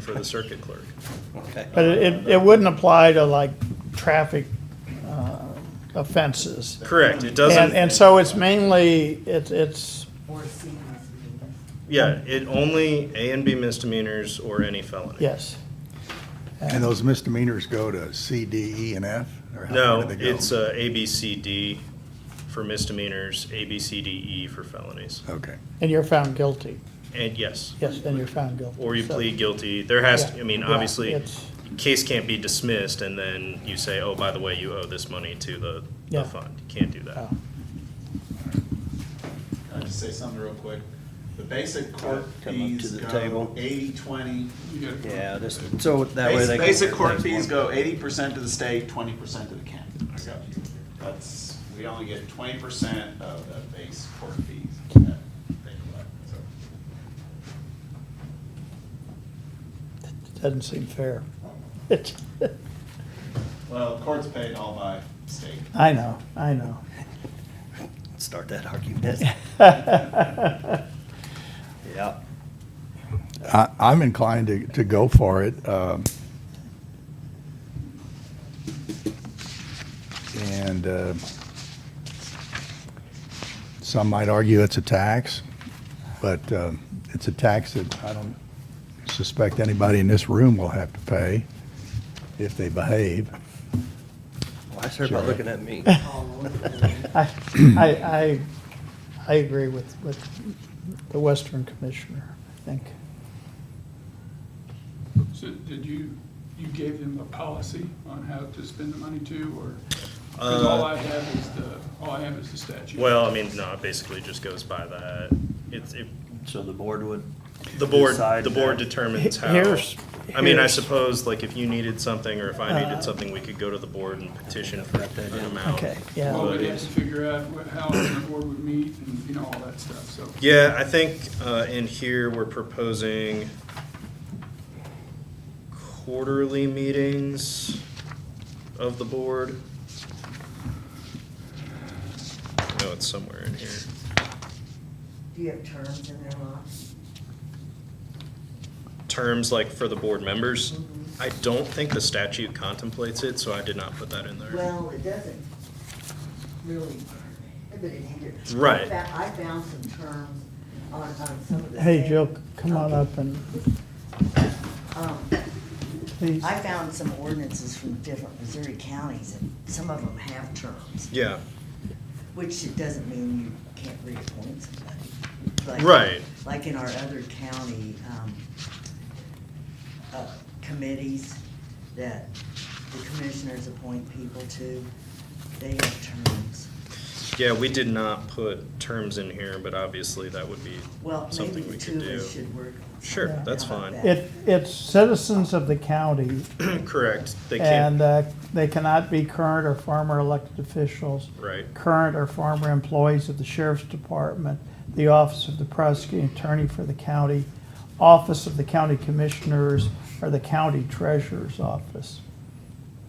for the circuit clerk. Okay. But it- it, it wouldn't apply to like traffic uh, offenses. Correct, it And, and doesn't, so it's mainly, it's, it's, Or C misdemeanors. yeah, it only A and B misdemeanors or any felony. yes. And those misdemeanors go to C, D, E, and F? or how No, far do they go? it's uh, A, B, C, D for misdemeanors, A, B, C, D, E for felonies. Okay. And you're found guilty. And yes, Yes, and you're found guilty. or you So- plead guilty. There has, to Yeah, I mean, yeah, obviously, it's- case can't be dismissed and then you say, oh, by the way, you owe this money to the, the Yeah. fund. You Can't do that. oh. Can I just say something real quick? The basic court Come up to fees the go table. eighty, twenty. Yeah, just, so that way they. can- Basic court fees go eighty percent to the state, twenty percent to the county. That's, we only get twenty percent of the base court fees that they collect, so. Doesn't seem fair. It's, Well, the court's paid all by state. I know, I know. Start that argument. Yeah. I, I'm inclined to, to go for it. um, And uh, some might argue it's a tax, but um, it's a tax that I don't suspect anybody in this room will have to pay if they behave. Why is everybody looking at me? All over the- I, I, I- I agree with, with the Western Commissioner, I think. So did you, you gave them a policy on how to spend the money too, or? Because all I have is the, all I have is the statute. Uh, Well, I mean, no, it basically just goes by that. It's, it, So the board would, The board, decide the board that. determines how. Here's- I mean, I here's- Uh, suppose, like, if you needed something, or if I needed something, we could go to the board and petition for Got that an in. amount. Okay, Well, yeah. we'd have to figure out what- how the board would meet and, you know, all that stuff, so. Yeah, I think, uh, in here, we're proposing quarterly meetings of the board. I know it's somewhere in here. Do you have terms in there, Ron? Terms like for the board members, I don't think the statute contemplates it, so I did not put that in there. Well, it doesn't really, but it needed. Right. I fa- I found some terms on, on some of the. Hey, state- Jill, come on up and, Um, please. I found some ordinances from different Missouri counties, and some of them have terms, Yeah, which it doesn't mean you can't reappoint somebody. Like- Right. Like in our other county, um, uh, committees that the commissioners appoint people to, they have terms. Yeah, we did not put terms in here, but obviously that would be Well, maybe something we the could two of do. us should work. on Sure, something. that's How about fine. that? It, it's citizens of the county Correct, they and can't, uh, they cannot be current or former elected officials, right, current or former employees of the sheriff's department, the office of the prosecuting attorney for the county, office of the county commissioners, or the county treasurer's office.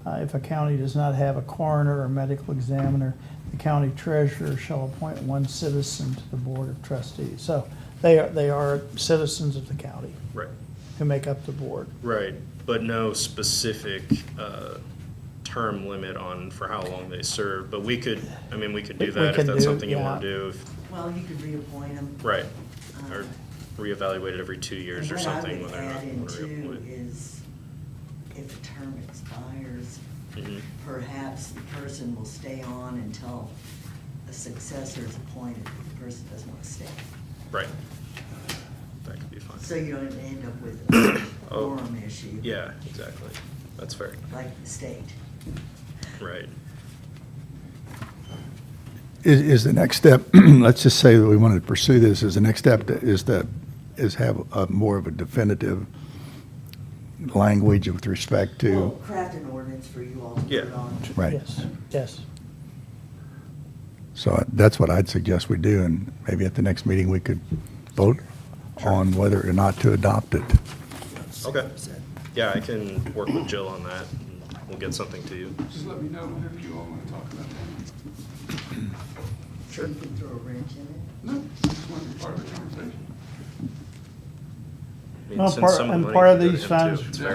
Uh, If a county does not have a coroner or medical examiner, the county treasurer shall appoint one citizen to the board of trustees. So they are, they are citizens of the county right, who make up the board. right, but no specific, uh, term limit on for how long they serve, but we could, I mean, we could We- do we that if can that's do- something you wanna yeah. do, if- Well, you could reappoint them. right, um, or reevaluate it every two years or and something when What they're I would not add in gonna too reappoint. is if a term expires, Mhm. perhaps the person will stay on until a successor is appointed, if the person doesn't want to stay. Right. That could be So fine, you don't end up with a Oh, quorum issue. yeah, exactly, that's fair, Like the state. right. Is, is the next step, let's just say that we wanted to pursue this, is the next step to- is to, is have a more of a definitive language with respect Well, to, Craft an ordinance for you all to put Yeah. on. right? Yes, yes. So that's what I'd suggest we do, and maybe at the next meeting, we could vote on whether or not to adopt it. Okay. Yeah, I can work with Jill on that. and We'll get something to you. Just let me know whenever you all want to talk about that. Sure. You can throw a wrench in it. No, just want to be part of the conversation. mean, Well, since part- some of the and money part of can go to these him, too. funds- It's